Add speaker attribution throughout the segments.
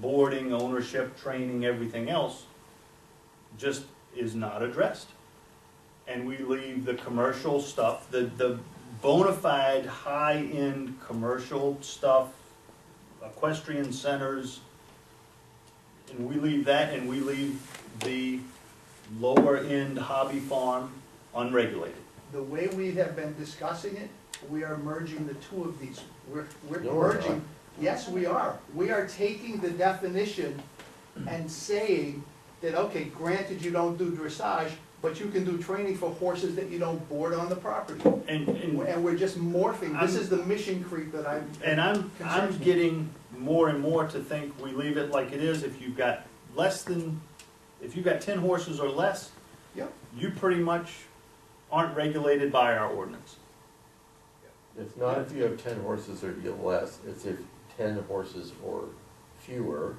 Speaker 1: boarding, ownership, training, everything else, just is not addressed. And we leave the commercial stuff, the, the bona fide, high-end commercial stuff, equestrian centers, and we leave that, and we leave the lower-end hobby farm unregulated.
Speaker 2: The way we have been discussing it, we are merging the two of these. We're, we're
Speaker 3: No, we're not.
Speaker 2: merging. Yes, we are. We are taking the definition and saying that, okay, granted you don't do dressage, but you can do training for horses that you don't board on the property.
Speaker 1: And, and
Speaker 2: And we're just morphing. This is the mission creep that I'm.
Speaker 1: And I'm, I'm getting more and more to think we leave it like it is, if you've got less than, if you've got ten horses or less,
Speaker 2: Yep.
Speaker 1: you pretty much aren't regulated by our ordinance.
Speaker 3: It's not if you have ten horses or you have less, it's if ten horses or fewer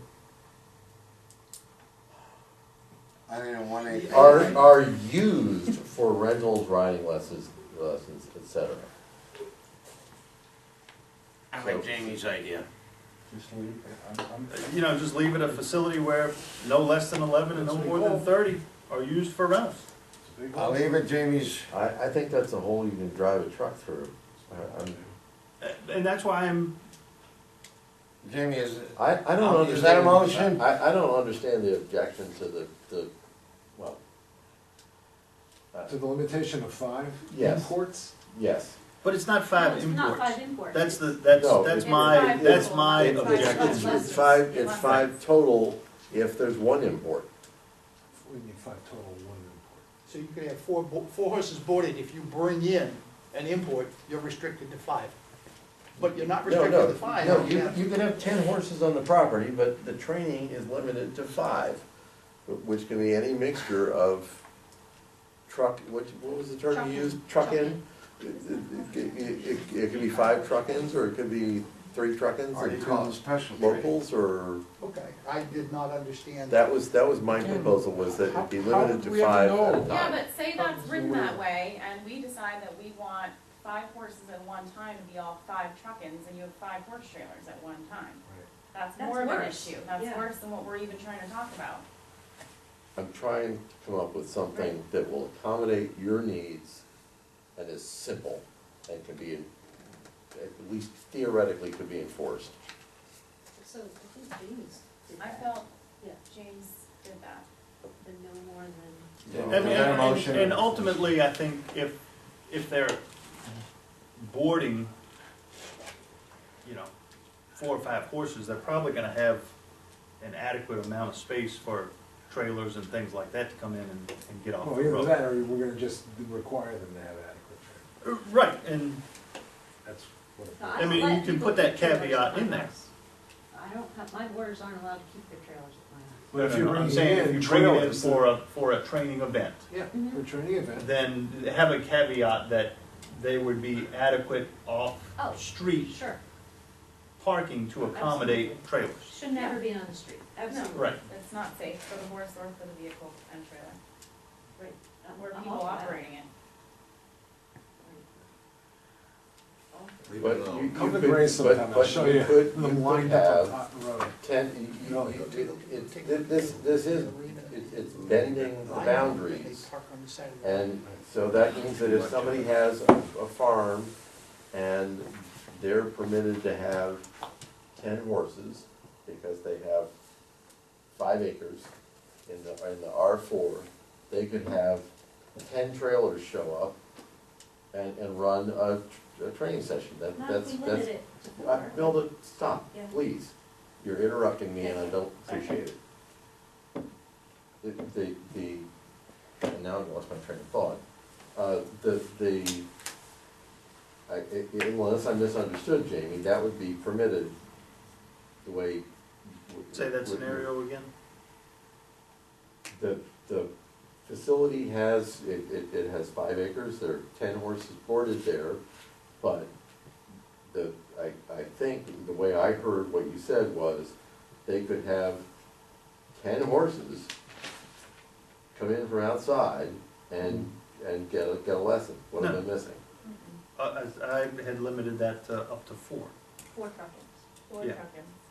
Speaker 4: I mean, in one eight.
Speaker 3: are, are used for rentals, riding lessons, lessons, et cetera.
Speaker 5: I like Jamie's idea.
Speaker 4: Just leave it. I'm, I'm,
Speaker 1: You know, just leave it a facility where no less than eleven and no more than thirty are used for rentals.
Speaker 4: I'll leave it Jamie's.
Speaker 3: I, I think that's a hole you can drive a truck through. I, I'm,
Speaker 1: A- And that's why I'm,
Speaker 4: Jamie is,
Speaker 3: I, I
Speaker 6: Oh,
Speaker 3: don't understand.
Speaker 4: Is that a motion?
Speaker 3: I, I don't understand the objection to the, the, well, uh,
Speaker 6: To the limitation of five
Speaker 3: Yes.
Speaker 6: imports?
Speaker 3: yes.
Speaker 1: but it's not five
Speaker 7: It's not
Speaker 1: imports.
Speaker 7: five imports.
Speaker 1: That's the, that's,
Speaker 3: No,
Speaker 1: that's
Speaker 3: it's-
Speaker 1: my,
Speaker 7: It's
Speaker 1: that's
Speaker 7: five
Speaker 1: my
Speaker 7: imports.
Speaker 3: It's- It's,
Speaker 1: objection.
Speaker 3: it's five, it's five total if there's one import.
Speaker 6: We need five total, one import.
Speaker 2: So you could have four, bo- four horses boarded, if you bring in an import, you're restricted to five. But you're not
Speaker 3: No,
Speaker 2: restricted
Speaker 3: no,
Speaker 2: to five.
Speaker 3: no, you, you can have ten horses on the property, but the training is limited to five, wh- which can be any mixture of truck, what, what was the term you used? Truckin'?
Speaker 7: Truckin'.
Speaker 3: It, it, it- it- it could be five truckins, or it could be three truckins
Speaker 4: are
Speaker 3: and
Speaker 4: you calling
Speaker 3: two
Speaker 4: special?
Speaker 3: locals, or,
Speaker 2: Okay, I did not understand.
Speaker 3: that was, that was my proposal, was that it be
Speaker 6: How- how
Speaker 3: limited
Speaker 6: would
Speaker 3: to
Speaker 6: we ever
Speaker 3: five
Speaker 6: know?
Speaker 3: at a
Speaker 7: Yeah,
Speaker 3: time.
Speaker 7: but say that's written that way, and we decide that we want five horses at one time to be all five truckins, and you have five horse trailers at one time. That's
Speaker 8: That's
Speaker 7: more of an
Speaker 8: worse.
Speaker 7: issue, that's
Speaker 8: Yeah.
Speaker 7: worse than what we're even trying to talk about.
Speaker 3: I'm trying to come up with something that will accommodate your needs and is simple and can be, en- at least theoretically could be enforced.
Speaker 8: So I think James did
Speaker 7: I
Speaker 8: that,
Speaker 7: felt
Speaker 8: Yeah.
Speaker 7: James did that.
Speaker 8: the no more than,
Speaker 4: No.
Speaker 1: And,
Speaker 4: Is that a
Speaker 1: and-
Speaker 4: motion?
Speaker 1: and ultimately, I think if, if they're boarding, you know, four or five horses, they're probably gonna have an adequate amount of space for trailers and things like that to come in and, and get off
Speaker 6: Well,
Speaker 1: the
Speaker 6: either Oh, that,
Speaker 1: road.
Speaker 6: or we're gonna just require them to have adequate training,
Speaker 1: Uh, Right, and,
Speaker 6: that's what. it-
Speaker 8: so
Speaker 1: I
Speaker 8: don't
Speaker 1: mean, you
Speaker 8: let
Speaker 1: can
Speaker 8: people
Speaker 1: put that
Speaker 8: keep trailers
Speaker 1: caveat
Speaker 8: at my
Speaker 1: in there.
Speaker 8: house. I don't have, my boarders aren't allowed to keep their trailers at
Speaker 6: But if
Speaker 1: No,
Speaker 6: you
Speaker 1: no, no,
Speaker 6: bring
Speaker 1: I'm saying
Speaker 6: in
Speaker 1: if you bring it in
Speaker 6: trailers,
Speaker 1: for a, for a training event,
Speaker 2: Yeah,
Speaker 8: my
Speaker 6: For
Speaker 8: house.
Speaker 6: a training event,
Speaker 1: then have a caveat that they would be adequate
Speaker 8: Oh.
Speaker 1: off-street
Speaker 8: Sure,
Speaker 1: parking to accommodate trailers.
Speaker 7: Should
Speaker 8: never
Speaker 7: never be,
Speaker 8: be on the street, absolutely.
Speaker 1: Right.
Speaker 7: it's not safe for the horse or for the vehicle and trailer,
Speaker 8: Right. I'm-
Speaker 7: where
Speaker 8: I'm
Speaker 7: people
Speaker 8: all for that.
Speaker 7: operating it.
Speaker 8: All for it.
Speaker 3: But you- you
Speaker 6: come to
Speaker 3: could-
Speaker 6: Grace
Speaker 3: but-
Speaker 6: sometime, I'll
Speaker 3: but
Speaker 6: show
Speaker 3: you
Speaker 6: you
Speaker 3: could-
Speaker 6: the
Speaker 3: you could
Speaker 6: wind
Speaker 3: have-
Speaker 6: up on Hot Road.
Speaker 3: Ten, you, you,
Speaker 6: No.
Speaker 3: you, it- thi- this, this is, it- it's bending the boundaries.
Speaker 2: They park on the side of the road.
Speaker 3: And so that means that if somebody has a, a farm and they're permitted to have ten horses because they have five acres in the, in the R four, they could have ten trailers show up and, and run a, a training session. That,
Speaker 8: Not
Speaker 3: that's,
Speaker 8: if we
Speaker 3: that's.
Speaker 8: limited it to
Speaker 3: Uh,
Speaker 8: four.
Speaker 3: Milda, stop,
Speaker 8: Yeah.
Speaker 3: please. You're interrupting me and I don't
Speaker 7: Sorry.
Speaker 3: appreciate it. The, the, the, and now I lost my train of thought. Uh, the, the, I, i- unless I misunderstood Jamie, that would be permitted the way.
Speaker 1: Say that scenario again?
Speaker 3: The, the facility has, it, it, it has five acres, there are ten horses boarded there, but the, I, I think, the way I heard what you said was, they could have ten horses come in from outside and, and get a, get a lesson, what am I missing?
Speaker 1: Uh, as I had limited that to up to four.
Speaker 7: Four truckins. Four
Speaker 1: Yeah.
Speaker 7: truckins.